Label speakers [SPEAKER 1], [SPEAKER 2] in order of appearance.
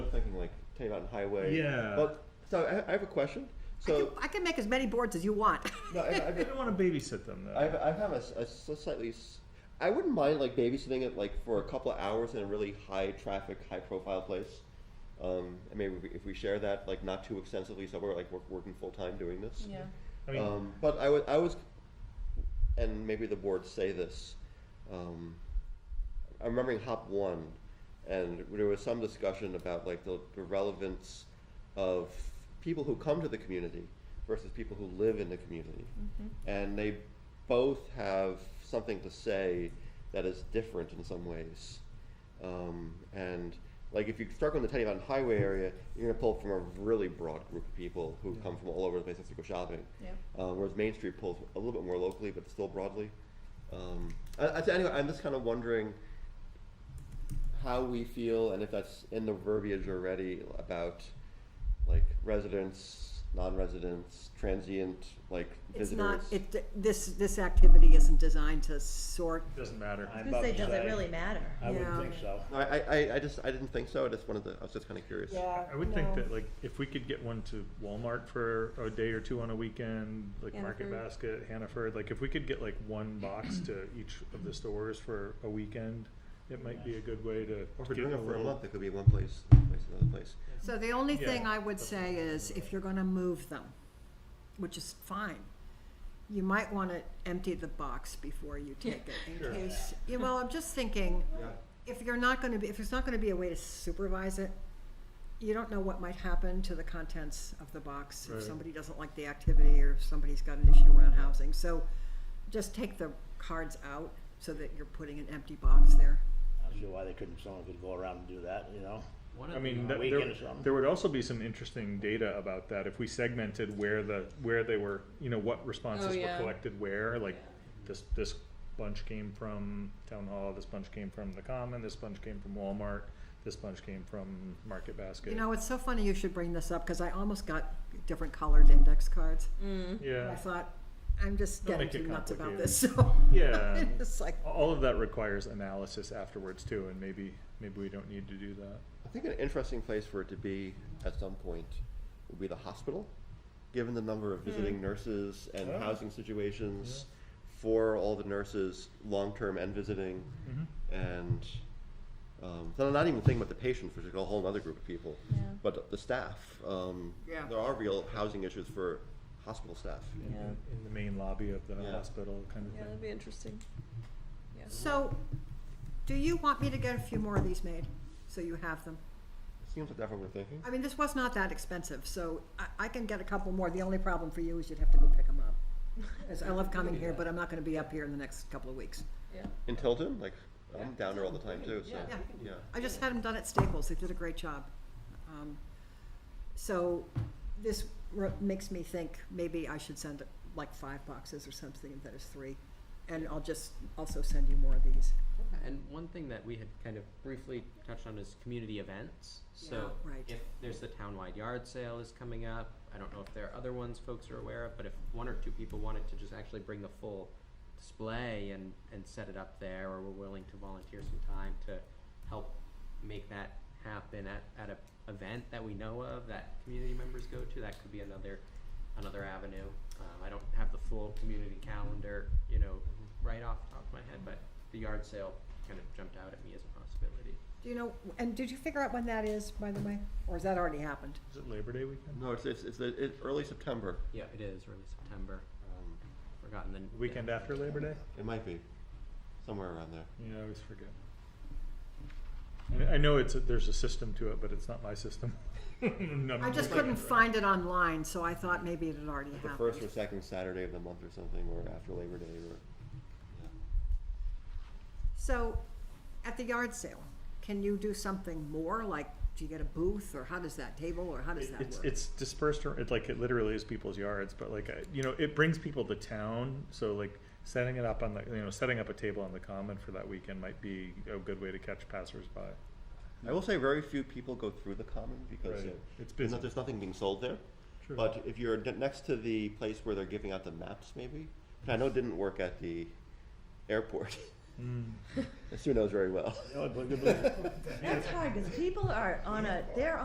[SPEAKER 1] thinking like Tavon Highway.
[SPEAKER 2] Yeah.
[SPEAKER 1] Well, so I, I have a question.
[SPEAKER 3] I
[SPEAKER 1] So
[SPEAKER 3] can- I can make as many boards as you want.
[SPEAKER 1] no, I, I've,
[SPEAKER 2] I don't want to babysit them though.
[SPEAKER 1] I've, I have a, s- a s- slightly. s- I wouldn't mind like babysitting it like for a couple of hours in a really high traffic, high profile place. Um, and maybe we- if we share that like not too extensively, so we're like we're working full time doing this.
[SPEAKER 4] Yeah.
[SPEAKER 2] I mean,
[SPEAKER 1] Um, but I was, I was, and maybe the boards say this. Um, I'm remembering Hop One, and there was some discussion about like the, the relevance of people who come to the community versus people who live in the community, and they both have something to say that is different in some ways. Um, and like if you start on the Teddy Mountain Highway area, you're gonna pull from a really broad group of people who come from all over the place to go shopping.
[SPEAKER 4] Yep.
[SPEAKER 1] Uh, whereas Main Street pulls a little bit more locally, but still broadly. Um, I, I, so anyway, I'm just kind of wondering how we feel and if that's in the verbiage already about like residents, non-residents, transient, like
[SPEAKER 3] It's not,
[SPEAKER 1] visitors.
[SPEAKER 3] it, this, this activity isn't designed to sort,
[SPEAKER 2] it doesn't matter.
[SPEAKER 5] I'm
[SPEAKER 4] Who's
[SPEAKER 5] about
[SPEAKER 4] say,
[SPEAKER 5] to
[SPEAKER 4] does it
[SPEAKER 5] say,
[SPEAKER 4] really matter?
[SPEAKER 5] I
[SPEAKER 3] Yeah.
[SPEAKER 5] wouldn't think so.
[SPEAKER 1] No, I, I, I just I didn't think so. I just wanted to. I was just kind of curious.
[SPEAKER 4] Yeah.
[SPEAKER 2] I would think that like if we could get one to Walmart for a day or two on a weekend, like Market
[SPEAKER 4] Hannaford.
[SPEAKER 2] Basket, Hannaford, like if we could get like one box to each of the stores for a weekend, it might be a good way to
[SPEAKER 1] Or if we're
[SPEAKER 2] get
[SPEAKER 1] doing
[SPEAKER 2] a
[SPEAKER 1] it for a
[SPEAKER 2] little-
[SPEAKER 1] month, it could be one place, another place, another place.
[SPEAKER 3] so the only
[SPEAKER 2] Yeah.
[SPEAKER 3] thing I would say is if you're gonna move them, which is fine, you might wanna empty the box before you take it
[SPEAKER 2] Sure.
[SPEAKER 3] in case, you know, I'm just thinking,
[SPEAKER 1] Yeah.
[SPEAKER 3] if you're not gonna be, if there's not gonna be a way to supervise it, you don't know what might happen to the contents of the box
[SPEAKER 2] Right.
[SPEAKER 3] if somebody doesn't like the activity or if somebody's got an issue around housing. So just take the cards out so that you're putting an empty box there.
[SPEAKER 5] I'm sure why they couldn't, someone could go around and do that, you know?
[SPEAKER 2] I mean,
[SPEAKER 5] on a
[SPEAKER 2] that-
[SPEAKER 5] weekend
[SPEAKER 2] there,
[SPEAKER 5] or something.
[SPEAKER 2] there would also be some interesting data about that if we segmented where the, where they were, you know, what responses were
[SPEAKER 4] Oh, yeah.
[SPEAKER 2] collected where, like this, this bunch came from Town Hall, this bunch came from the Common, this bunch came from Walmart, this bunch came from Market Basket.
[SPEAKER 3] You know, it's so funny you should bring this up because I almost got different colored index cards. I
[SPEAKER 2] Yeah,
[SPEAKER 3] thought, I'm just
[SPEAKER 2] Don't
[SPEAKER 3] getting
[SPEAKER 2] make it
[SPEAKER 3] too nuts about
[SPEAKER 2] complicated.
[SPEAKER 3] this, so.
[SPEAKER 2] yeah.
[SPEAKER 3] It's like,
[SPEAKER 2] All of that requires analysis afterwards too, and maybe, maybe we don't need to do that.
[SPEAKER 1] I think an interesting place for it to be at some point would be the hospital, given the number of visiting
[SPEAKER 3] Hmm.
[SPEAKER 1] nurses and
[SPEAKER 2] Oh.
[SPEAKER 1] housing situations for all the nurses, long term and visiting, and um, so I'm not even thinking about the patients, which is a whole other group of people,
[SPEAKER 4] Yeah.
[SPEAKER 1] but the staff. Um,
[SPEAKER 3] Yeah.
[SPEAKER 1] There are real housing issues for hospital staff.
[SPEAKER 2] In- In the main lobby of the
[SPEAKER 1] Yeah.
[SPEAKER 2] hospital kind of
[SPEAKER 4] Yeah,
[SPEAKER 2] thing.
[SPEAKER 4] that'd be interesting.
[SPEAKER 3] So, do you want me to get a few more of these made, so you have them?
[SPEAKER 1] Seems like that's what we're thinking.
[SPEAKER 3] I mean, this was not that expensive, so I, I can get a couple more. The only problem for you is you'd have to go pick them up. 'Cause I love coming here, but I'm not gonna be up here in the next couple of weeks.
[SPEAKER 4] Yeah.
[SPEAKER 1] In Tilton, like I'm down there all the time too. So
[SPEAKER 3] Yeah.
[SPEAKER 1] yeah.
[SPEAKER 3] I just had them done at Staples. They did a great job. Um, So this r- makes me think maybe I should send like five boxes or something instead of three. And I'll just also send you more of these.
[SPEAKER 6] And one thing that we had kind of briefly touched on is community events. So
[SPEAKER 3] Yeah, right.
[SPEAKER 6] if there's the townwide yard sale is coming up, I don't know if there are other ones folks are aware of, but if one or two people wanted to just actually bring the full display and, and set it up there, or were willing to volunteer some time to help make that happen at, at a event that we know of, that community members go to, that could be another, another avenue. Um, I don't have the full community calendar, you know, right off the top of my head, but the yard sale kind of jumped out at me as a possibility.
[SPEAKER 3] Do you know, and did you figure out when that is, by the way? Or has that already happened?
[SPEAKER 2] Is it Labor Day weekend?
[SPEAKER 1] No, it's it's, it's, it's early September.
[SPEAKER 6] Yeah, it is early September.
[SPEAKER 1] Um,
[SPEAKER 6] Forgotten the
[SPEAKER 2] Weekend after Labor Day?
[SPEAKER 1] It might be somewhere around there.
[SPEAKER 2] Yeah, I always forget. I I know it's, a- there's a system to it, but it's not my system. None
[SPEAKER 3] I
[SPEAKER 2] of
[SPEAKER 3] just
[SPEAKER 2] us-
[SPEAKER 3] couldn't find it online, so I thought maybe it had already
[SPEAKER 1] The first
[SPEAKER 3] happened.
[SPEAKER 1] or second Saturday of the month or something, or after Labor Day, or
[SPEAKER 3] So, at the yard sale, can you do something more? Like, do you get a booth, or how does that table, or how does that
[SPEAKER 2] It's,
[SPEAKER 3] work?
[SPEAKER 2] it's dispersed, ar- it like, it literally is people's yards, but like, I- you know, it brings people to town, so like, setting it up on the, you know, setting up a table on the common for that weekend might be a good way to catch passersby.
[SPEAKER 1] I will say very few people go through the common because
[SPEAKER 2] Right.
[SPEAKER 1] uh, there's,
[SPEAKER 2] It's busy.
[SPEAKER 1] not- there's nothing being sold there. But if you're de- next to the place where they're giving out the maps, maybe, which I know didn't work at the airport. Sue knows very well.
[SPEAKER 5] You know, but- but-
[SPEAKER 4] That's hard, because people are on a, they're